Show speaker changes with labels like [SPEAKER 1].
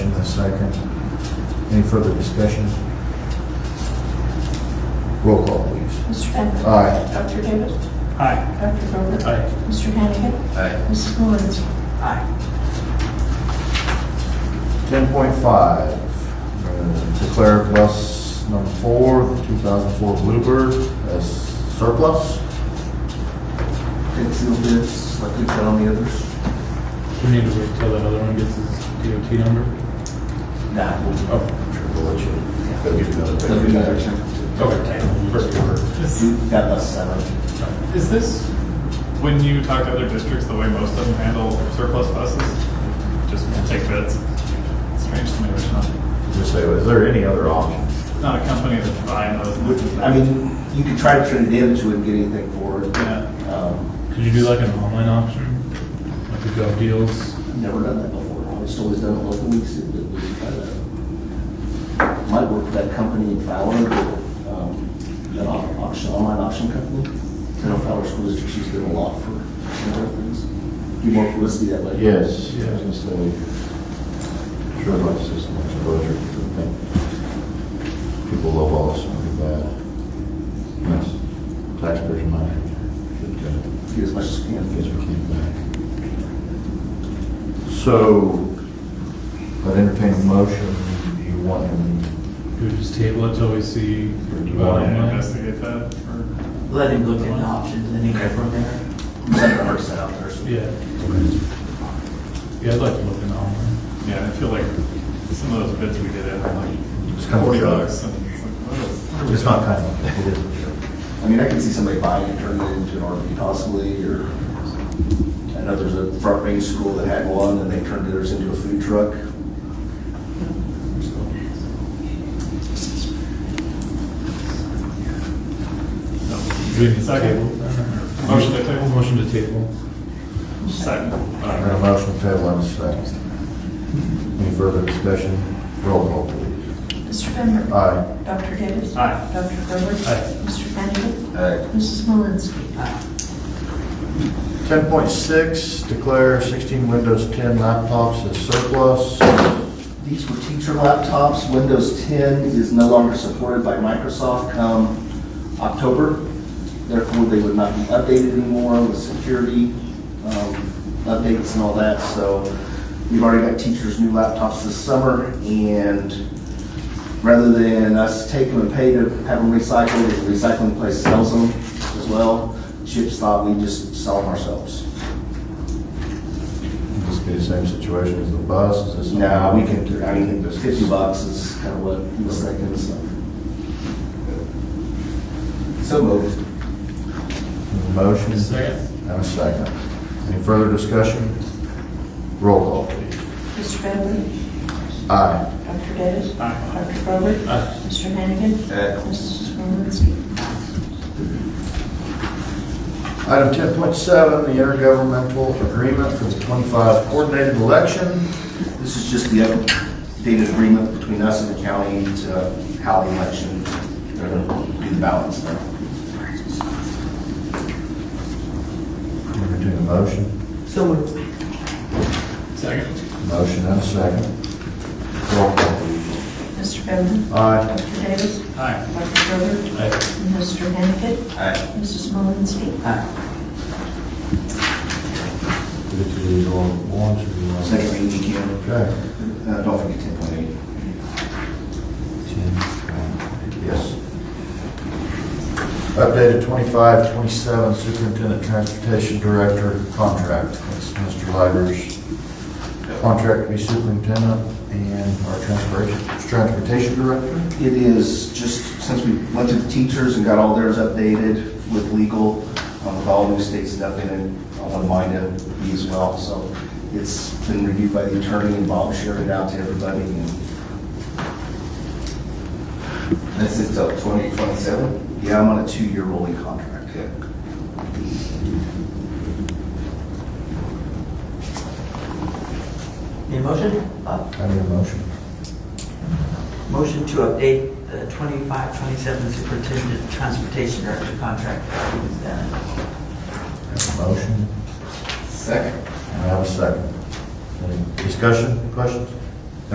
[SPEAKER 1] second. Any further discussion? Roll call, please.
[SPEAKER 2] Mr. Bender.
[SPEAKER 1] Aye.
[SPEAKER 2] Dr. Davis.
[SPEAKER 3] Aye.
[SPEAKER 2] Dr. Gerber.
[SPEAKER 3] Aye.
[SPEAKER 2] Mr. Hannigan.
[SPEAKER 3] Aye.
[SPEAKER 2] Mrs. Malinsky.
[SPEAKER 3] Aye.
[SPEAKER 1] 10.5, uh, declare plus number four, 2004 Bluebird as surplus.
[SPEAKER 4] Get two bids, like we did on the others.
[SPEAKER 5] We need to wait till that other one gets his DOT number?
[SPEAKER 4] Nah, we'll,
[SPEAKER 5] Oh,
[SPEAKER 1] Sure, we'll let you, they'll give you another
[SPEAKER 4] they'll do
[SPEAKER 1] bid.
[SPEAKER 4] another check.
[SPEAKER 5] okay. Perfect.
[SPEAKER 4] We got less seven.
[SPEAKER 6] Is this, when you talk to other districts, the way most of them handle surplus buses? Just take bids? Strange to me, there's not,
[SPEAKER 1] Just say, is there any other options?
[SPEAKER 6] not a company that's buying those. and looking at
[SPEAKER 4] I mean, you could try to turn it in, but you wouldn't get anything for it.
[SPEAKER 6] Yeah.
[SPEAKER 4] Um,
[SPEAKER 5] Could you do like an online auction? Like a Gov Deals?
[SPEAKER 4] I've never done that before. I've just always done it locally, so that we can kind of, might work for that company in Fowler, but, um, that au- auction, online auction company. I know Fowler School District, she's doing a lot for some other things. Do more publicity that way.
[SPEAKER 1] Yes,
[SPEAKER 5] Yeah.
[SPEAKER 1] yes, just say, sure, my system exposure, I think. People love all this, something bad. Yes, taxpayers' money, should go.
[SPEAKER 4] Do as much as we can.
[SPEAKER 1] Yes, we came back. So, I'd entertain a motion, do you want him?
[SPEAKER 5] Do we just table it till we see?
[SPEAKER 1] Or do you
[SPEAKER 6] You want to
[SPEAKER 5] bottom line?
[SPEAKER 6] investigate that or?
[SPEAKER 7] Let him look into options and then go from there.
[SPEAKER 4] Send our set out there, so.
[SPEAKER 5] Yeah. Yeah, I'd like to look in online.
[SPEAKER 6] Yeah, I feel like some of those bids we did in,
[SPEAKER 1] It's
[SPEAKER 6] like,
[SPEAKER 1] kind of a
[SPEAKER 6] forty
[SPEAKER 1] joke.
[SPEAKER 6] bucks. and it's like, what is- what are we
[SPEAKER 1] It's not kind
[SPEAKER 6] doing?
[SPEAKER 1] of, it is a joke.
[SPEAKER 4] I mean, I can see somebody buying it, turning it into an RV possibly, or, I know there's a front range school that had one, and they turned theirs into a food truck.
[SPEAKER 5] Do we need to
[SPEAKER 6] Second.
[SPEAKER 5] table? it?
[SPEAKER 6] Motion to table.
[SPEAKER 5] Motion to table.
[SPEAKER 6] Second.
[SPEAKER 1] I have a motion, table and a second. Any further discussion? Roll call, please.
[SPEAKER 2] Mr. Bender.
[SPEAKER 1] Aye.
[SPEAKER 2] Dr. Davis.
[SPEAKER 6] Aye.
[SPEAKER 2] Dr. Gerber.
[SPEAKER 5] Aye.
[SPEAKER 2] Mr. Hannigan.
[SPEAKER 4] Aye.
[SPEAKER 2] Mrs. Malinsky.
[SPEAKER 1] Ten point six, declare sixteen Windows ten laptops as surplus.
[SPEAKER 4] These were teacher laptops. Windows 10 is no longer supported by Microsoft come October. Therefore, they would not be updated anymore with security um, updates and all that. So we've already got teachers' new laptops this summer, and rather than us take them and pay to have them recycled, if the recycling place sells them as well, Chip's thought we just sell them ourselves.
[SPEAKER 1] This be the same situation as the bus, is this?
[SPEAKER 4] Now, we can, I mean, 50 bucks is kind of what he was thinking, so. So moved.
[SPEAKER 1] Motion.
[SPEAKER 5] Second.
[SPEAKER 1] And a second. Any further discussion? Roll call, please.
[SPEAKER 2] Mr. Bender.
[SPEAKER 1] Aye.
[SPEAKER 2] Dr. Davis.
[SPEAKER 6] Aye.
[SPEAKER 2] Dr. Gerber.
[SPEAKER 5] Aye.
[SPEAKER 2] Mr. Hannigan.
[SPEAKER 4] Aye.
[SPEAKER 2] Mrs. Malinsky.
[SPEAKER 1] Item ten point seven, the intergovernmental agreement for the twenty-five coordinated election.
[SPEAKER 4] This is just the updated agreement between us and the county to how the election, they're gonna do the balance now.
[SPEAKER 1] Entertain a motion.
[SPEAKER 7] So moved.
[SPEAKER 6] Second.
[SPEAKER 1] Motion and a second. Roll call,
[SPEAKER 2] Mr. Bender.
[SPEAKER 1] please. Aye.
[SPEAKER 2] Dr. Davis.
[SPEAKER 6] Aye.
[SPEAKER 2] Dr. Gerber.
[SPEAKER 5] Aye.
[SPEAKER 2] Mr. Hannigan.
[SPEAKER 4] Aye.
[SPEAKER 2] Mrs. Malinsky.
[SPEAKER 7] Aye.
[SPEAKER 1] Did you do these all at once or do you want?
[SPEAKER 4] Second reading, you can,
[SPEAKER 1] Okay.
[SPEAKER 4] uh, don't forget 10.8.
[SPEAKER 1] Ten, Yes. Updated 25-27 Superintendent Transportation Director contract. That's Mr. Liger's contract to be superintendent and our transportation, transportation director.
[SPEAKER 4] It is just, since we went to the teachers and got all theirs updated with legal, um, with all new state stuff in it, I want mine to be as well, so it's been reviewed by the attorney, and Bob shared it out to everybody, and. This is till twenty twenty-seven? Yeah, I'm on a two-year rolling contract.
[SPEAKER 7] Need a motion? Bob?
[SPEAKER 1] I need a motion.
[SPEAKER 7] Uh, Motion to update the 25, 27 superintendent transportation director contract.
[SPEAKER 1] Have a motion.
[SPEAKER 4] Second.
[SPEAKER 1] And I have a second. Any discussion, questions?